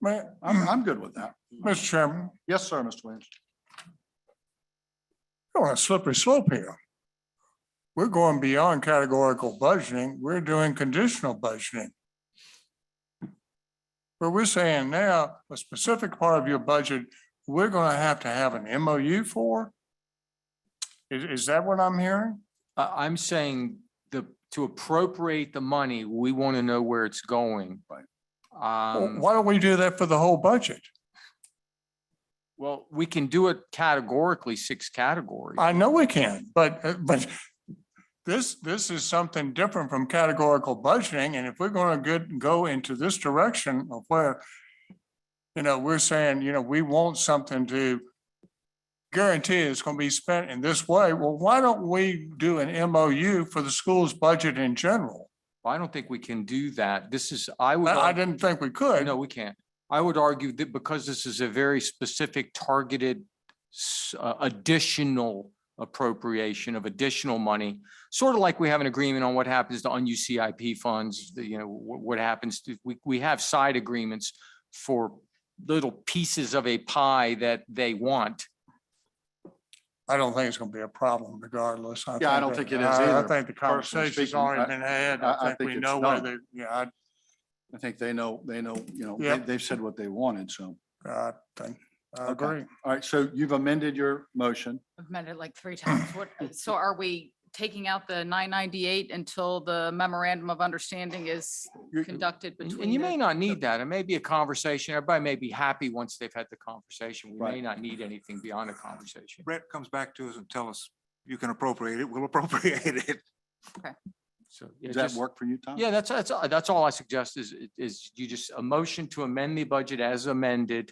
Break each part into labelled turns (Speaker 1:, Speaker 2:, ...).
Speaker 1: Ma-
Speaker 2: I'm, I'm good with that.
Speaker 1: Mr. Chairman,
Speaker 2: Yes, sir, Mr. Williams.
Speaker 1: we're on a slippery slope here. We're going beyond categorical budgeting. We're doing conditional budgeting. Where we're saying now, a specific part of your budget, we're going to have to have an MOU for? Is, is that what I'm hearing?
Speaker 3: I, I'm saying the, to appropriate the money, we want to know where it's going. Right.
Speaker 1: Well,
Speaker 3: Um,
Speaker 1: Why don't we do that for the whole budget?
Speaker 3: well, we can do it categorically, six categories.
Speaker 1: I know we can, but, uh, but this, this is something different from categorical budgeting. And if we're going to good, go into this direction of where, you know, we're saying, you know, we want something to guarantee it's going to be spent in this way. Well, why don't we do an MOU for the school's budget in general?
Speaker 3: I don't think we can do that. This is, I would.
Speaker 1: I, I
Speaker 3: argue-
Speaker 1: didn't think we could.
Speaker 3: No, we can't. I would argue that because this is a very specific targeted s- uh, additional appropriation of additional money, sort of like we have an agreement on what happens to unused CIP funds, the, you know, what, what happens to, we, we have side agreements for little pieces of a pie that they want.
Speaker 1: I don't think it's going to be a problem regardless.
Speaker 2: Yeah, I don't
Speaker 1: that-
Speaker 2: think it is
Speaker 1: I- I
Speaker 2: either,
Speaker 1: think the
Speaker 2: personally
Speaker 1: conversation's
Speaker 2: speaking. I-
Speaker 1: already been had.
Speaker 2: I- I
Speaker 1: I
Speaker 2: think
Speaker 1: think we
Speaker 2: it's
Speaker 1: know where they,
Speaker 2: done.
Speaker 1: yeah, I
Speaker 2: I think they know, they know, you know,
Speaker 1: Yeah.
Speaker 2: they, they've said what they wanted, so.
Speaker 1: I think, I
Speaker 2: Okay.
Speaker 1: agree.
Speaker 2: All right, so you've amended your motion.
Speaker 4: I've met it like three times. What, uh, so are we taking out the nine ninety-eight until the memorandum of understanding is
Speaker 2: You-
Speaker 4: conducted
Speaker 3: uh, And-
Speaker 4: between?
Speaker 3: And you may
Speaker 4: the-
Speaker 3: not need that. It may be a conversation. Everybody may be happy once they've had the conversation. We may
Speaker 2: Right.
Speaker 3: not need anything beyond a conversation.
Speaker 5: Brett comes back to us and tell us, you can appropriate it, we'll appropriate it.
Speaker 3: So. yeah,
Speaker 2: Does that
Speaker 3: just-
Speaker 2: work for you, Tom?
Speaker 3: Yeah, that's, that's, that's all I suggest is, is you just, a motion to amend the budget as amended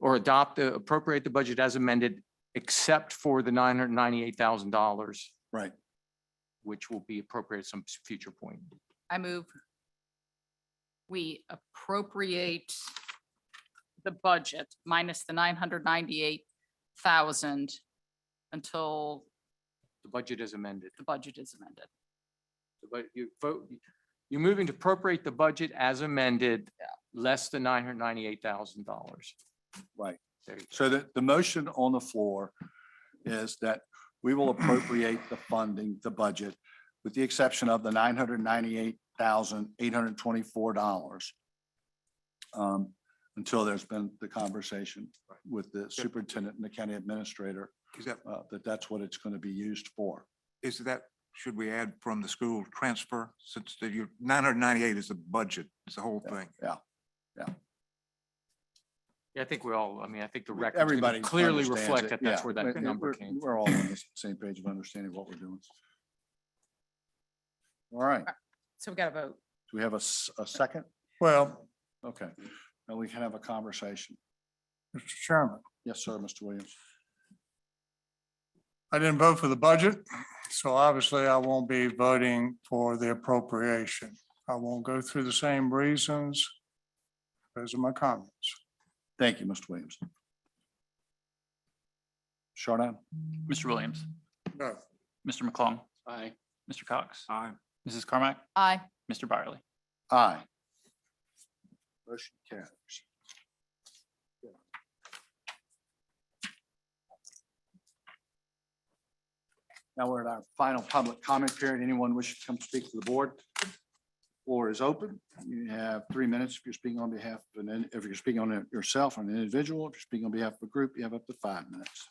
Speaker 3: or adopt, the appropriate the budget as amended, except for the nine hundred ninety-eight thousand dollars,
Speaker 2: Right.
Speaker 3: which will be appropriate at some future point.
Speaker 4: I move. We appropriate the budget minus the nine hundred ninety-eight thousand until
Speaker 3: The budget is amended.
Speaker 4: the budget is amended.
Speaker 3: But you vote, you're moving to appropriate the budget as amended, less than nine hundred ninety-eight thousand dollars.
Speaker 2: Right.
Speaker 3: There you go.
Speaker 2: So the, the motion on the floor is that we will appropriate the funding, the budget, with the exception of the nine hundred ninety-eight thousand, eight hundred twenty-four dollars um, until there's been the conversation with the superintendent and the county administrator,
Speaker 5: Is that,
Speaker 2: uh, that that's what it's going to be used for.
Speaker 5: is that, should we add from the school transfer since the, you, nine hundred ninety-eight is the budget, it's the whole thing.
Speaker 3: Yeah, I think we all, I mean, I think the record
Speaker 2: Everybody
Speaker 3: clearly
Speaker 2: understands
Speaker 3: reflect
Speaker 2: it.
Speaker 3: that that's
Speaker 2: Yeah.
Speaker 3: where
Speaker 2: We-
Speaker 3: that
Speaker 2: we-
Speaker 3: number
Speaker 2: we're-
Speaker 3: came. from.
Speaker 2: We're all on the same page of understanding what we're doing. All right, do
Speaker 4: So we got to vote.
Speaker 2: we have a, s- a second?
Speaker 1: Well,
Speaker 2: Okay, now we can have a conversation.
Speaker 1: Mr. Chairman,
Speaker 2: Yes, sir, Mr. Williams.
Speaker 1: I didn't vote for the budget, so obviously I won't be voting for the appropriation. I won't go through the same reasons. Those are my comments.
Speaker 2: Thank you, Mr. Williams. Shardan?
Speaker 6: Mr. Williams,
Speaker 1: No.
Speaker 6: Mr. McClung. Aye. Mr. Cox,
Speaker 5: Aye.
Speaker 6: Mrs. Carmack,
Speaker 4: Aye.
Speaker 6: Mr. Byerly.
Speaker 2: Aye. Motion carries. Now we're at our final public comment period. Anyone wishing to come speak to the board? Floor is open. You have three minutes. If you're speaking on behalf of an, if you're speaking on yourself, or an individual, if you're speaking on behalf of a group, you have up to five minutes.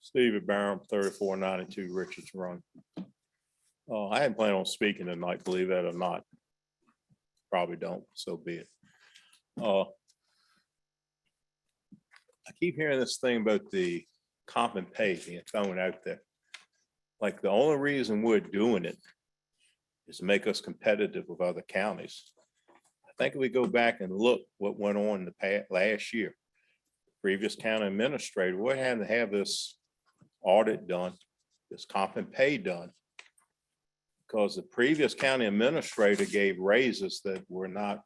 Speaker 7: Steve at Barham, thirty-four ninety-two Richards Run. Uh, I hadn't planned on speaking tonight, believe that or not. Probably don't, so be it. Uh, I keep hearing this thing about the comp and pay being thrown out there. Like, the only reason we're doing it is to make us competitive with other counties. I think if we go back and look what went on in the past, last year, previous county administrator, we had to have this audit done, this comp and pay done. Because the previous county administrator gave raises that were not,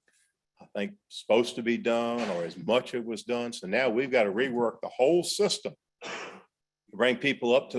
Speaker 7: I think, supposed to be done or as much it was done. So now we've got to rework the whole system. Bring people up to